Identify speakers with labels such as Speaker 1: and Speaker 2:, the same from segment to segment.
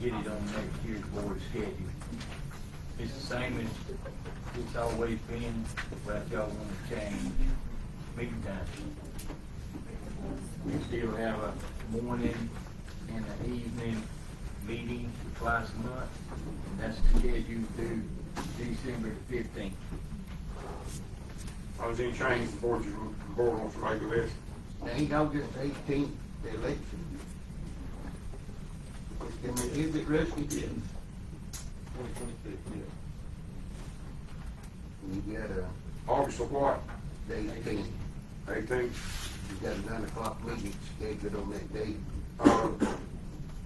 Speaker 1: get it on next year's board schedule. It's the same as it's always been, but y'all wanna change meeting times. We still have a morning and an evening meeting twice a month, and that's scheduled through December fifteenth.
Speaker 2: I was in change before you, board wants to make a list.
Speaker 1: Now, he August eighteenth, the election. Can we give it Rusty?
Speaker 3: Twenty twenty-six, yeah.
Speaker 1: You got a,
Speaker 2: August of what?
Speaker 1: the eighteenth,
Speaker 2: Eighteenth.
Speaker 1: you got a nine o'clock meeting scheduled on that date.
Speaker 2: Uh, does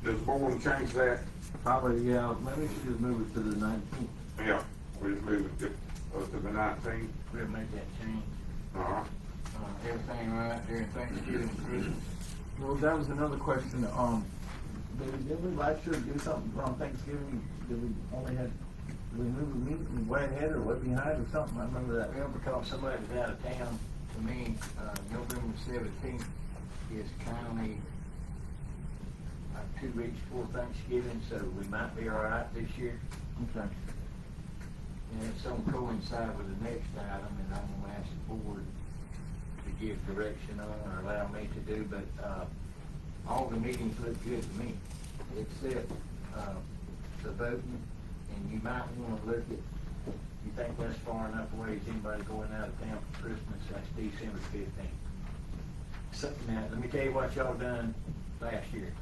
Speaker 2: the board change that?
Speaker 3: Probably, yeah, maybe we should move it to the nineteenth.
Speaker 2: Yeah, we just move it to, uh, to the nineteenth.
Speaker 1: We'll make that change.
Speaker 2: Uh-huh.
Speaker 1: Uh, everything right, everything's good and Christmas.
Speaker 3: Well, that was another question, um, did we, did we last year do something on Thanksgiving, did we only had, did we move the meeting way ahead or way behind or something, I remember that.
Speaker 1: Well, because somebody was out of town, to me, uh, November seventeenth is county, uh, two weeks before Thanksgiving, so we might be all right this year.
Speaker 3: Okay.
Speaker 1: And it's gonna coincide with the next item, and I'm gonna ask the board to give direction on or allow me to do, but, uh, all the meetings look good to me, except, uh, the voting, and you might wanna look at, you think that's far enough away, is anybody going out of town for Christmas, that's December fifteenth. So, now, let me tell you what y'all done last year,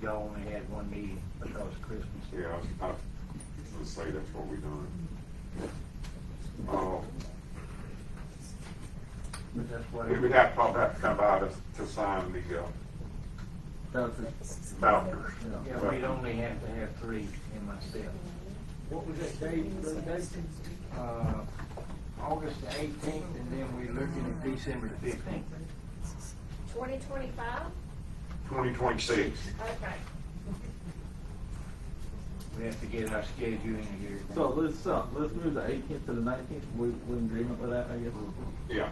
Speaker 1: y'all only had one meeting because of Christmas.
Speaker 2: Yeah, I, I, let's say that's what we done. Uh,
Speaker 1: But that's what.
Speaker 2: we would have to probably have to come by to, to sign the, uh,
Speaker 3: That was it.
Speaker 2: vouchers.
Speaker 1: Yeah, we'd only have to have three and myself. What was that date, Brother Dave? Uh, August eighteenth, and then we're looking at December fifteenth.
Speaker 4: Twenty twenty-five?
Speaker 2: Twenty twenty-six.
Speaker 4: Okay.
Speaker 1: We have to get our scheduling here.
Speaker 3: So let's, uh, let's move the eighteenth to the nineteenth, we, we in agreement with that, I guess.
Speaker 2: Yeah.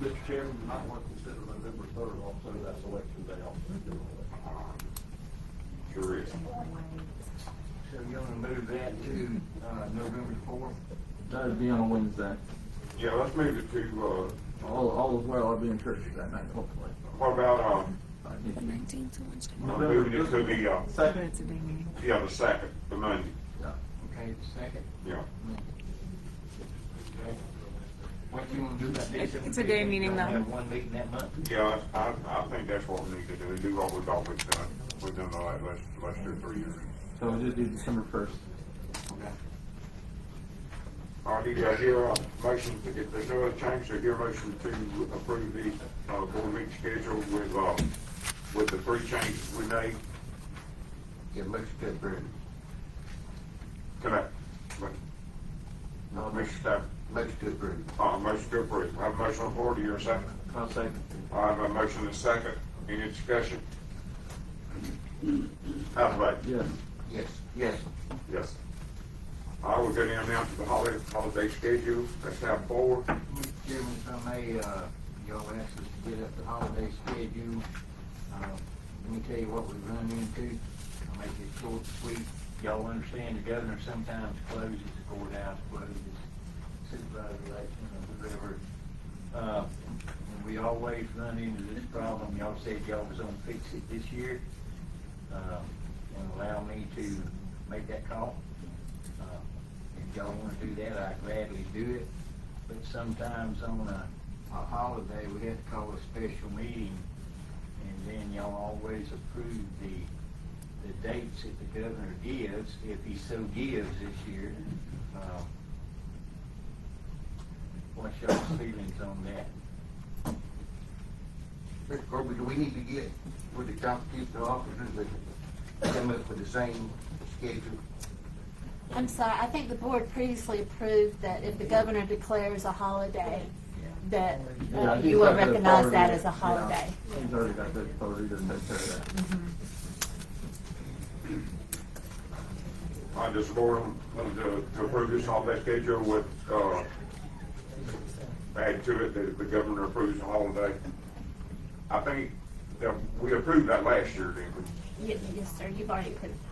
Speaker 5: Mr. Chairman, you might want to consider November third also, that's election day also.
Speaker 2: Uh, Sure is.
Speaker 1: So you wanna move that to, uh, November fourth?
Speaker 3: That'd be on a Wednesday,
Speaker 2: Yeah, let's move it to,
Speaker 3: all, all is well, I'll be in church that night, hopefully.
Speaker 2: uh, what about,
Speaker 6: Nineteenth to Wednesday.
Speaker 2: uh, moving it to the, uh,
Speaker 3: Second,
Speaker 6: That's a big meeting.
Speaker 2: yeah, the second, the Monday,
Speaker 1: Okay, the second.
Speaker 2: yeah.
Speaker 1: Okay. What you wanna do about December
Speaker 6: It's-
Speaker 1: fifteenth?
Speaker 6: it's a day meeting, though.
Speaker 1: Have one meeting that month?
Speaker 2: Yeah, I, I think that's what we need to do, do what we've always done, we've done the last, last two, three years.
Speaker 3: so we just do December first.
Speaker 1: Okay.
Speaker 2: All right, do I hear a motion, if there's no other change, do I hear a motion to approve the, uh, board meeting schedule with, uh, with the three changes we made?
Speaker 1: Yeah, let's get ready.
Speaker 2: Can I,
Speaker 1: No,
Speaker 2: Mr. Staff,
Speaker 1: let's get ready.
Speaker 2: uh, motion to approve, have a motion on board, do you hear a second?
Speaker 3: I'll second.
Speaker 2: I have a motion and a second, any discussion? How about?
Speaker 3: Yes.
Speaker 1: Yes, yes.
Speaker 2: Yes. I will go down now to the holiday, holiday schedule, that's tab four.
Speaker 1: Mr. Chairman, if I may, uh, y'all asked us to get up the holiday schedule. Uh, Let me tell you what we run into. I'll make it short and sweet. Y'all understand the governor sometimes closes the courthouse, closes supervisor election or whatever. Uh, And we always run into this problem. Y'all said y'all was gonna fix it this year. Uh, And allow me to make that call. Uh, If y'all wanna do that, I gladly do it. But sometimes on a, a holiday, we have to call a special meeting, and then y'all always approve the, the dates that the governor gives, if he so gives this year. Uh, What's y'all's feelings on that?
Speaker 5: Mr. Kirby, do we need to get with the constitutional officers that come up with the same schedule?
Speaker 7: I'm sorry, I think the board previously approved that if the governor declares a holiday, that uh,
Speaker 3: Yeah, he's
Speaker 7: you will
Speaker 3: got the
Speaker 7: recognize
Speaker 3: authority.
Speaker 7: that as a holiday.
Speaker 3: Yeah, He's already got the authority to take care of that.
Speaker 2: I just board them to to approve this holiday schedule with, uh, add to it that the governor approves the holiday. I think that we approved that last year, didn't we?
Speaker 7: Ye- Yes, sir, you've already approved.